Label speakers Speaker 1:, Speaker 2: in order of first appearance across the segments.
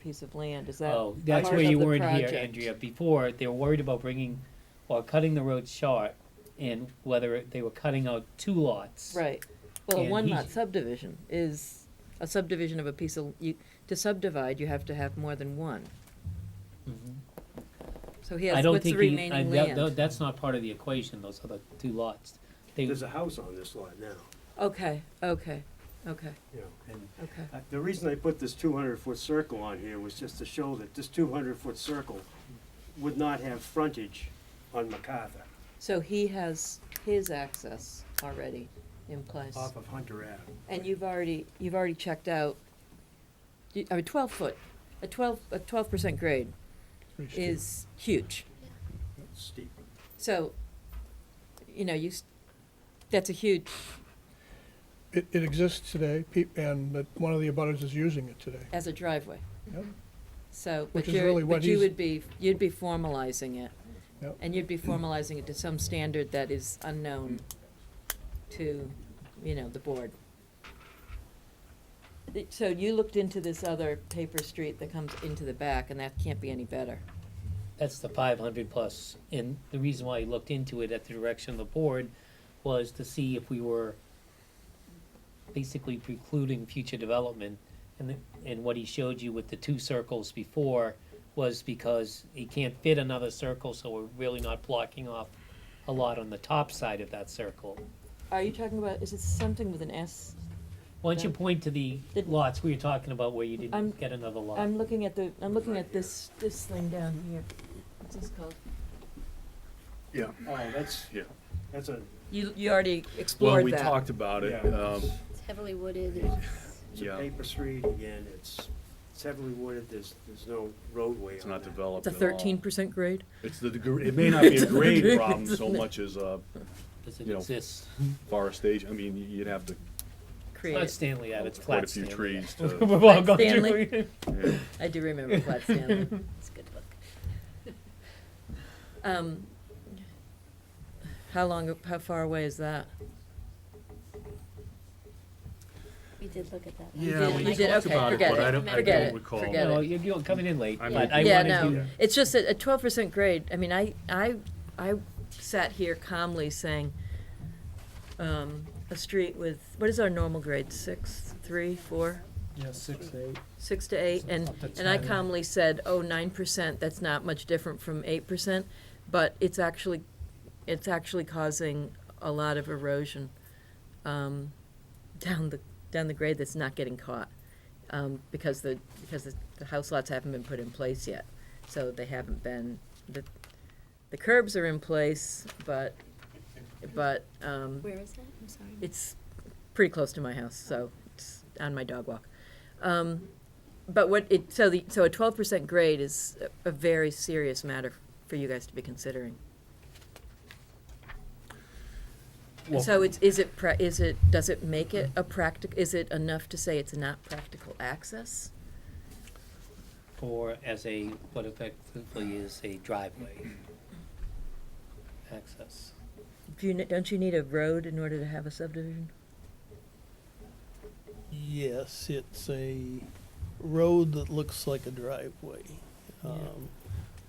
Speaker 1: piece of land, is that?
Speaker 2: Oh, that's
Speaker 1: part
Speaker 2: where
Speaker 1: of
Speaker 2: you
Speaker 1: the
Speaker 2: weren't here,
Speaker 1: project?
Speaker 2: Andrea. Before, they were worried about bringing or cutting the road short and whether it- they were cutting out two lots.
Speaker 1: Right, well, a
Speaker 2: And
Speaker 1: one
Speaker 2: he-
Speaker 1: lot subdivision is a subdivision of a piece of, you, to subdivide, you have to have more than one.
Speaker 2: Mhm.
Speaker 1: So he
Speaker 2: I
Speaker 1: has,
Speaker 2: don't
Speaker 1: what's the
Speaker 2: think he, I,
Speaker 1: remaining
Speaker 2: that, tho-
Speaker 1: land?
Speaker 2: that's not part of the equation, those other two lots. They,
Speaker 3: There's a house on this lot now,
Speaker 1: Okay, okay, okay,
Speaker 3: you know, and
Speaker 1: okay,
Speaker 3: uh, the reason I put this two hundred foot circle on here was just to show that this two hundred foot circle would not have frontage on MacArthur,
Speaker 1: so he has his access already in place,
Speaker 3: off of Hunter Ave.
Speaker 1: and you've already, you've already checked out, you, I mean, twelve foot, a twelve, a twelve percent grade is huge.
Speaker 3: Steep.
Speaker 1: So, you know, you, s- that's a huge,
Speaker 4: It, it exists today, pe- and that one of the abutters is using it today.
Speaker 1: as a driveway.
Speaker 4: Yep.
Speaker 1: So, but
Speaker 4: Which is
Speaker 1: you're,
Speaker 4: really what
Speaker 1: but you
Speaker 4: he's-
Speaker 1: would be, you'd be formalizing it.
Speaker 4: Yep.
Speaker 1: And you'd be formalizing it to some standard that is unknown to, you know, the board. Th- So you looked into this other paper street that comes into the back, and that can't be any better.
Speaker 2: that's the five hundred plus, and the reason why I looked into it at the direction of the board was to see if we were basically precluding future development, and the, and what he showed you with the two circles before was because he can't fit another circle, so we're really not blocking off a lot on the top side of that circle.
Speaker 1: Are you talking about, is it something with an S?
Speaker 2: Why don't you
Speaker 1: Yeah.
Speaker 2: point to the
Speaker 1: Did-
Speaker 2: lots we were talking about where you
Speaker 1: I'm-
Speaker 2: didn't get another lot?
Speaker 1: I'm looking at the, I'm looking
Speaker 3: Right
Speaker 1: at this, this thing down here. What's this called?
Speaker 5: Yeah,
Speaker 3: Oh, that's,
Speaker 5: yeah.
Speaker 3: that's a,
Speaker 1: You, you already
Speaker 5: Well,
Speaker 1: explored
Speaker 5: we
Speaker 1: that.
Speaker 5: talked about it.
Speaker 3: Yeah.
Speaker 5: Um,
Speaker 6: It's heavily wooded. it's-
Speaker 3: it's a
Speaker 5: Yeah.
Speaker 3: paper street, again, it's, it's heavily wooded, there's, there's no roadway on
Speaker 5: It's not
Speaker 3: that.
Speaker 5: developed
Speaker 1: It's a
Speaker 5: at all.
Speaker 1: thirteen percent grade?
Speaker 5: It's the, degre- it may not be a grade problem so
Speaker 1: Isn't it?
Speaker 5: much as a
Speaker 2: Does it
Speaker 5: you know,
Speaker 2: exist?
Speaker 5: forestation. I mean, you'd have to,
Speaker 2: It's not
Speaker 1: Created.
Speaker 2: Stanley Ave, it's
Speaker 5: quite a
Speaker 2: flat
Speaker 5: few
Speaker 2: Stanley.
Speaker 5: trees
Speaker 2: We've
Speaker 5: to,
Speaker 2: all gone through
Speaker 1: Stanley.
Speaker 2: it.
Speaker 5: yeah.
Speaker 1: I do remember Flat Stanley.
Speaker 6: It's a good book.
Speaker 1: Um, how long, how far away is that?
Speaker 6: We did look at that.
Speaker 5: Yeah,
Speaker 1: did-
Speaker 5: we
Speaker 1: you did-
Speaker 5: talked
Speaker 1: okay,
Speaker 5: about it,
Speaker 1: forget
Speaker 5: but
Speaker 1: it,
Speaker 5: I don't, I
Speaker 1: forget
Speaker 5: don't
Speaker 1: it,
Speaker 5: recall.
Speaker 1: forget
Speaker 2: No, you're, you're coming in late,
Speaker 5: I
Speaker 2: but
Speaker 5: might-
Speaker 2: I
Speaker 1: Yeah,
Speaker 2: wanted
Speaker 1: no,
Speaker 2: to,
Speaker 1: it's just that a twelve percent grade, I mean, I, I, I sat here calmly saying, um, a street with, what is our normal grade, six, three, four,
Speaker 7: Yeah, six, eight.
Speaker 1: six to eight? And,
Speaker 7: Up to
Speaker 1: and I
Speaker 7: 10.
Speaker 1: calmly said, oh, nine percent, that's not much different from eight percent, but it's actually, it's actually causing a lot of erosion, um, down the, down the grade that's not getting caught. um, because the, because the, the house lots haven't been put in place yet. So they haven't been, the, the curbs are in place, but, but, um,
Speaker 6: Where is that? I'm sorry.
Speaker 1: it's pretty close to my house, so it's on my dog walk. Um, but what it, so the, so a twelve percent grade is a, a very serious matter for you guys to be considering.
Speaker 5: Well-
Speaker 1: So it's, is it, pra- is it, does it make it a practic, is it enough to say it's not practical access?
Speaker 2: for, as a, what effectively is a driveway access.
Speaker 1: Do you, ne- don't you need a road in order to have a subdivision?
Speaker 7: Yes, it's a road that looks like a driveway.
Speaker 1: Yeah.
Speaker 7: Um,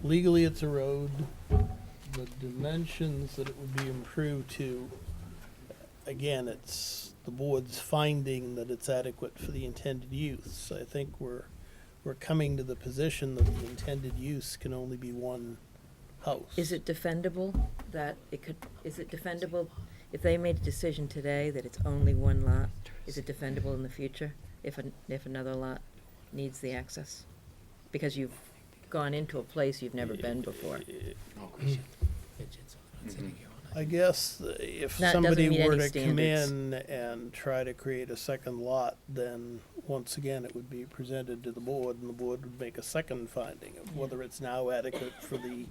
Speaker 7: Legally, it's a road. The dimensions that it would be improved to, again, it's the board's finding that it's adequate for the intended use. I think we're, we're coming to the position that the intended use can only be one house.
Speaker 1: Is it defendable that it could, is it defendable, if they made a decision today that it's only one lot, is it defendable in the future if, an- if another lot needs the access? Because you've gone into a place you've never been before.
Speaker 5: Oh,
Speaker 7: I guess th- if
Speaker 1: That doesn't
Speaker 7: somebody
Speaker 1: meet
Speaker 7: were
Speaker 1: any
Speaker 7: to come
Speaker 1: standards.
Speaker 7: in and try to create a second lot, then once again, it would be presented to the board and the board would make a second finding of whether it's now adequate for the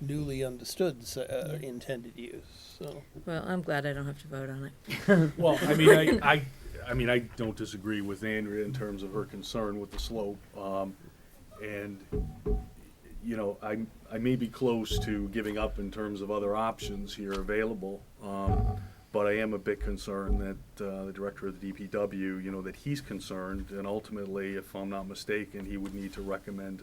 Speaker 7: newly understood s- uh,
Speaker 1: Yeah.
Speaker 7: intended use, so.
Speaker 1: Well, I'm glad I don't have to vote on it.
Speaker 5: Well, I mean, I, I, I mean, I don't disagree with Andrea in terms of her concern with the slope. Um, and, you know, I, I may be close to giving up in terms of other options here available. Um, But I am a bit concerned that uh, the director of the DPW, you know, that he's concerned, and ultimately, if I'm not mistaken, he would need to recommend to